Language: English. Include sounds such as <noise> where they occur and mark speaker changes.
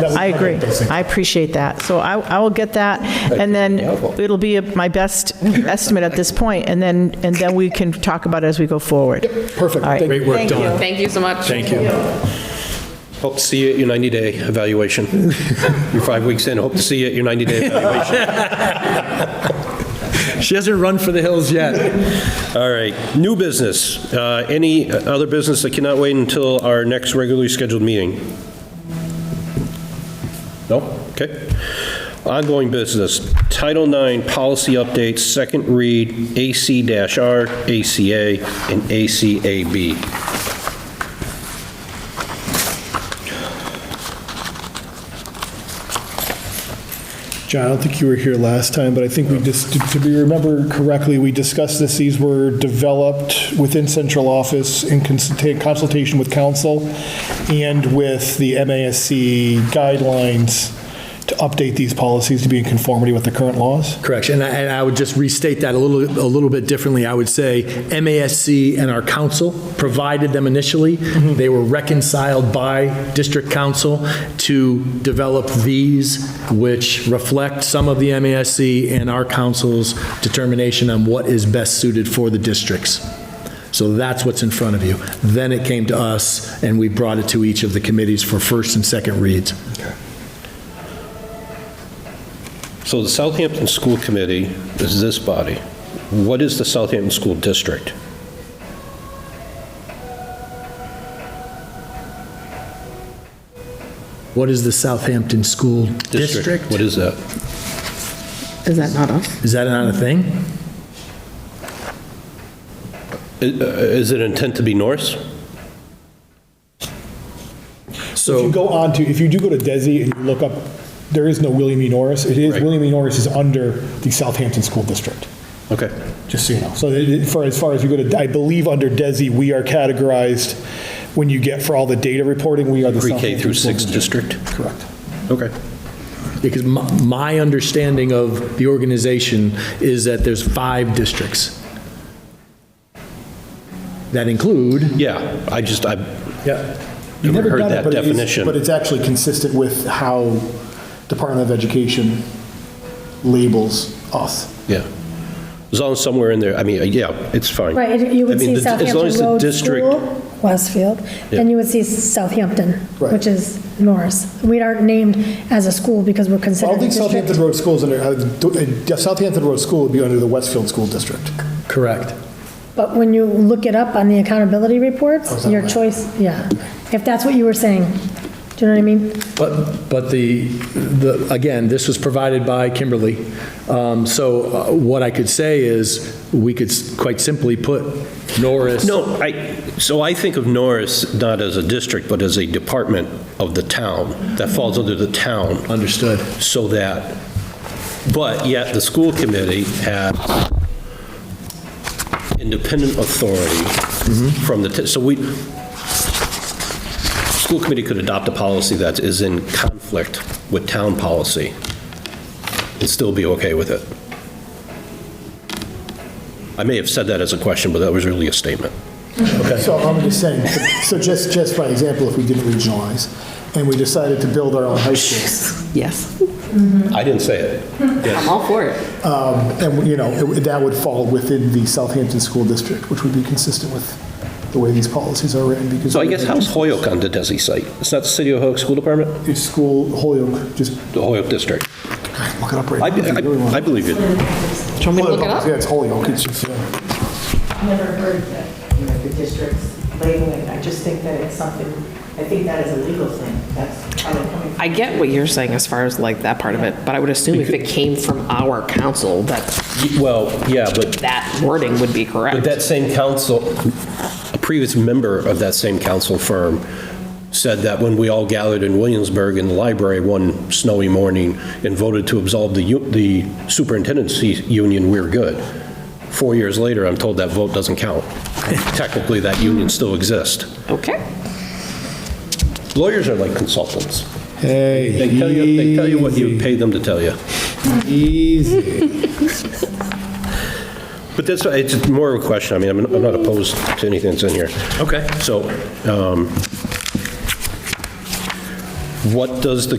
Speaker 1: That would
Speaker 2: I agree.
Speaker 1: highlight those things.
Speaker 2: I appreciate that. So I, I will get that, and then it'll be my best estimate at this point, and then, and then we can talk about it as we go forward.
Speaker 1: Perfect.
Speaker 2: All right.
Speaker 1: Thank you.
Speaker 3: Great work,
Speaker 2: Thank
Speaker 3: Dawn.
Speaker 4: Thank you so much.
Speaker 3: Thank you.
Speaker 5: Hope to see you at your 90-day
Speaker 3: <laughs>
Speaker 5: evaluation. You're five weeks in, hope to see you at your 90-day evaluation.
Speaker 3: <laughs> She hasn't run for the hills yet.
Speaker 5: All right, new business. Uh, Any other business that cannot wait until our next regularly scheduled meeting? No? Okay. Ongoing business, Title IX policy updates, second read, AC-R, ACA, and ACAB.
Speaker 1: John, I don't think you were here last time, but I think we just, to be remember correctly, we discussed this, these were developed within central office in consulta- consultation with council and with the MASC guidelines to update these policies to be in conformity with the current laws.
Speaker 3: Correction, and I- and I would just restate that a little, a little bit differently. I would say MASC and our council provided them initially.
Speaker 5: Mm-hmm.
Speaker 3: They were reconciled by district council to develop these, which reflect some of the MASC and our council's determination on what is best suited for the districts. So that's what's in front of you. Then it came to us, and we brought it to each of the committees for first and second reads.
Speaker 5: So the Southampton School Committee is this body. What is the Southampton School District?
Speaker 3: What is the Southampton School District?
Speaker 5: What is that?
Speaker 6: Is that not us?
Speaker 3: Is that not a thing?
Speaker 5: I- uh, Is it intent to be Norse?
Speaker 1: If you
Speaker 3: So,
Speaker 1: go on to, if you do go to DESI and you look up, there is no William E. Norris. It is,
Speaker 5: Right.
Speaker 1: William E. Norris is under the Southampton School District,
Speaker 5: Okay.
Speaker 1: just so you know. So it- it- for, as far as you go to, I believe under DESI, we are categorized, when you get for all the data reporting, we are the
Speaker 5: Pre-K
Speaker 1: Southampton
Speaker 5: through
Speaker 1: School
Speaker 5: sixth
Speaker 1: District.
Speaker 5: district?
Speaker 1: Correct.
Speaker 5: Okay.
Speaker 3: because my, my understanding of the organization is that there's five districts. That include,
Speaker 5: Yeah, I just, I
Speaker 1: You've never
Speaker 5: never heard
Speaker 1: done it,
Speaker 5: that
Speaker 1: but it is,
Speaker 5: definition.
Speaker 1: but it's actually consistent with how Department of Education labels us.
Speaker 5: yeah. As long as somewhere in there, I mean, uh, yeah, it's fine.
Speaker 7: Right, and you
Speaker 5: I
Speaker 7: would
Speaker 5: mean,
Speaker 7: see
Speaker 5: the- as long as
Speaker 7: Southampton
Speaker 5: the
Speaker 7: Road
Speaker 5: district-
Speaker 7: School, Westfield,
Speaker 5: Yeah.
Speaker 7: then you would see Southampton,
Speaker 1: Right.
Speaker 7: which is Norris. We aren't named as a school because we're
Speaker 1: I
Speaker 7: considered
Speaker 1: don't
Speaker 7: a
Speaker 1: think
Speaker 7: district.
Speaker 1: Southampton Road School's under, uh, do- uh, Southampton Road School would be under the Westfield School District.
Speaker 3: correct.
Speaker 7: But when you look it up on the accountability
Speaker 1: Oh,
Speaker 7: reports, your choice, yeah. If that's what you were saying, do you know what I mean?
Speaker 3: But, but the, the, again, this was provided by Kimberly. Um, So uh, what I could say is, we could s- quite simply put Norris.
Speaker 5: No, I, so I think of Norris not as a district, but as a department of the town that falls under the town.
Speaker 3: Understood.
Speaker 5: so that, but yet the school committee had independent authority from the, t- so we, school committee could adopt a policy that is in conflict with town policy and still be okay with it. I may have said that as a question, but that was really a statement.
Speaker 1: So I'm just saying, so just, just by example, if we didn't regionalize, and we decided to build our own high schools,
Speaker 6: Yes,
Speaker 5: I didn't say it.
Speaker 6: I'm all for it.
Speaker 1: and, you know, it- that would fall within the Southampton School District, which would be consistent with the way these policies are written, because.
Speaker 5: So I guess how's Hoyok on the DESI site? It's not the City of Hoyok School Department?
Speaker 1: It's school, Holyoke, just
Speaker 5: The Hoyok District.
Speaker 1: look it up right
Speaker 5: I
Speaker 1: now. if you really want.
Speaker 5: I- I believe it.
Speaker 6: Do you want me to look it up?
Speaker 1: Yeah, it's Holyoke, it's just, yeah.
Speaker 8: never heard that, you know, the district's labeling. I just think that it's something, I think that is a legal thing. That's how they're coming from.
Speaker 6: I get what you're saying as far as like that part of it, but I would assume if it came from our council, that
Speaker 5: Well, yeah, but,
Speaker 6: that wording would be
Speaker 5: but
Speaker 6: correct.
Speaker 5: that same council, a previous member of that same council firm said that when we all gathered in Williamsburg in the library one snowy morning and voted to absolve the, u- the superintendency union, we were good. Four years later, I'm told that vote doesn't count. Technically, that union still exists.
Speaker 6: Okay.
Speaker 5: Lawyers are like consultants. Hey. They tell you, they tell you what you pay them to tell you. But that's, it's more of a question, I mean, I'm I'm not opposed to anything that's in here.
Speaker 3: Okay.
Speaker 5: So, um, what does the